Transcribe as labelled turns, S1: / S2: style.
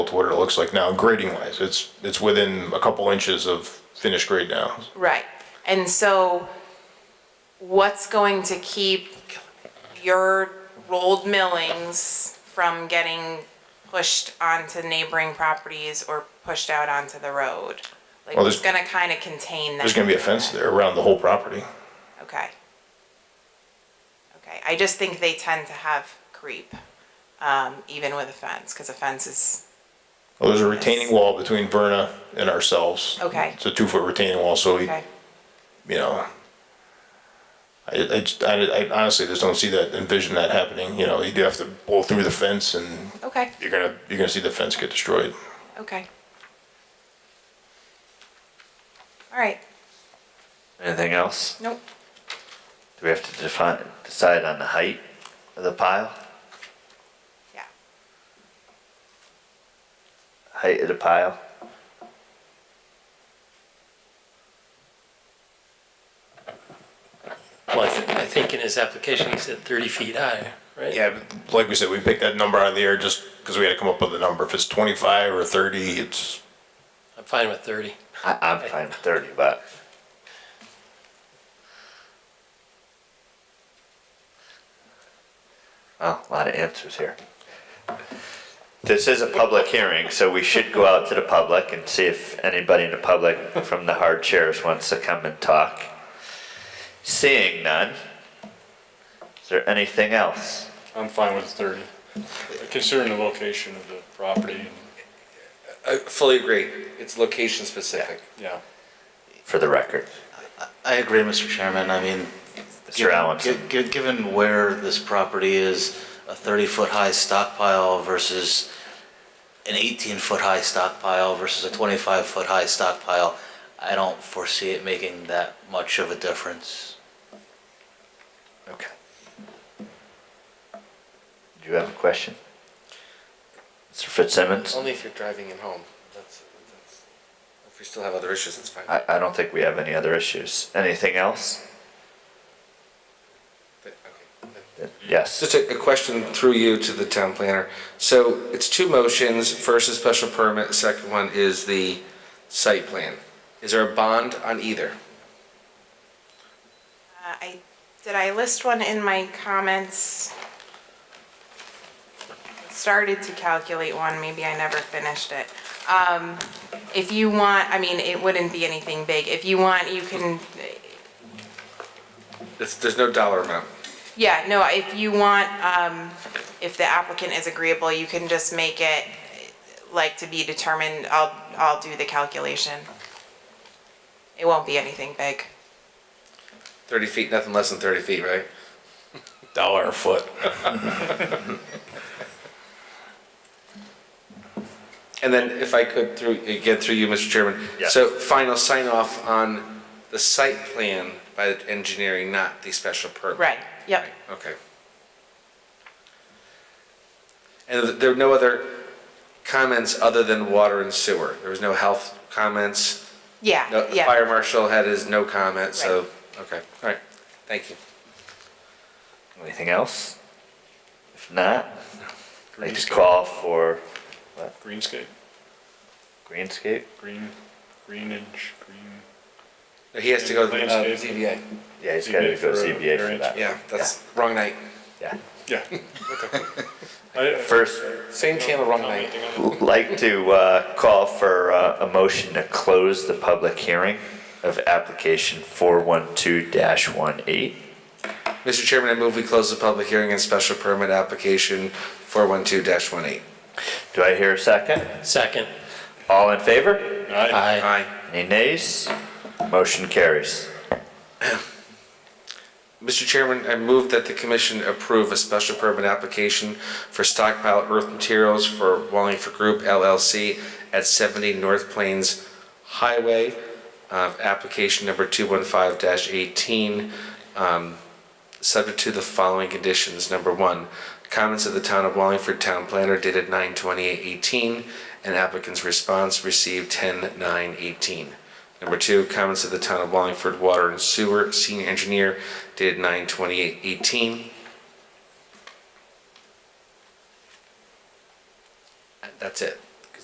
S1: to what it looks like now, grading wise. It's, it's within a couple inches of finished grade now.
S2: Right, and so what's going to keep your rolled millings from getting pushed onto neighboring properties or pushed out onto the road? Like,
S1: Well,
S2: what's
S1: there's-
S2: gonna kinda contain that?
S1: There's gonna be a fence there around the whole property.
S2: Okay. Okay, I just think they tend to have creep, um, even with a fence, cause a fence is,
S1: Well, there's a retaining wall between Verna and ourselves.
S2: Okay.
S1: It's a two foot retaining wall, so, he-
S2: okay,
S1: you know. I, I, just- I I honestly just don't see that, envision that happening, you know, you do have to blow through the fence and
S2: okay,
S1: you're gonna, you're gonna see the fence get destroyed.
S2: okay. All right,
S3: Anything else?
S2: nope,
S3: Do we have to define, decide on the height of the pile?
S2: yeah,
S3: Height of the pile?
S4: Well, I thi- I think in his application, he said 30 feet high, right?
S1: Yeah, but like we said, we picked that number out of the air just because we had to come up with a number. If it's twenty-five or thirty, it's,
S4: I'm fine with 30.
S3: I, I'm fine with thirty, but. Well, a lot of answers here. This is a public hearing, so we should go out to the public and see if anybody in the public from the hard chairs wants to come and talk. Seeing none, is there anything else?
S5: I'm fine with thirty, considering the location of the property, and,
S6: I fully agree. It's location specific.
S5: yeah.
S3: for the record.
S7: I agree, Mr. Chairman. I mean,
S3: Mr. Allenson.
S7: gi- gi- given where this property is, a 30-foot-high stockpile versus an 18-foot-high stockpile versus a 25-foot-high stockpile, I don't foresee it making that much of a difference.
S3: Okay. Do you have a question? Um, Mr. Fitzsimmons?
S6: Only if you're driving it home. That's, that's, if we still have other issues, it's fine.
S3: I, I don't think we have any other issues. Anything else?
S6: But, okay.
S3: Yes.
S6: Just a, a question through you to the town planner. So it's two motions. First is special permit, second one is the site plan. Is there a bond on either?
S2: uh, I, did I list one in my comments? Started to calculate one, maybe I never finished it. Um, if you want, I mean, it wouldn't be anything big, if you want, you can,
S6: It's, there's no dollar amount.
S2: Yeah, no, if you want, um, if the applicant is agreeable, you can just make it like to be determined, I'll, I'll do the calculation. It won't be anything big.
S6: Thirty feet, nothing less than thirty feet, right?
S1: dollar a foot.
S6: And then if I could through, again, through you, Mr. Chairman.
S3: Yes.
S6: So final sign off on the site plan by the engineering, not the special permit.
S2: Right, yep.
S6: Okay. And th- there were no other comments other than water and sewer? There was no health comments? No,
S2: Yeah,
S6: the
S2: yeah.
S6: fire marshal had his no comment, so, okay, all right, thank you.
S3: Anything else? If not, I just call for
S5: Greenscape,
S3: Greenscape?
S5: green, greenage, green.
S6: No, He has to go to the uh,
S5: Landscape.
S6: ZBA.
S3: Yeah, he's gotta
S5: ZBA
S3: go
S5: for a
S3: ZBA for
S5: variance.
S3: that.
S6: Yeah, that's wrong night.
S3: Yeah.
S5: Yeah, okay. I- I-
S3: First,
S6: Same channel, wrong night.
S5: Commenting on it?
S3: like to, uh, call for, uh, a motion to close the public hearing of application four one two dash one eight.
S6: Mr. Chairman, I move we close the public hearing and special permit application 412-18.
S3: Do I hear a second?
S4: Second.
S3: All in favor?
S6: Aye.
S3: Any nays? Motion carries.
S6: Mr. Chairman, I move that the commission approve a special permit application for stockpile earth materials for Wallingford Group LLC at 70 North Plains Highway, uh, application number 215-18, um, subject to the following conditions. Number one, comments of the Town of Wallingford Town Planner dated 9/28/18 and applicant's response received 10/9/18. Number two, comments of the Town of Wallingford Water and Sewer Senior Engineer dated 9/28/18. That's it.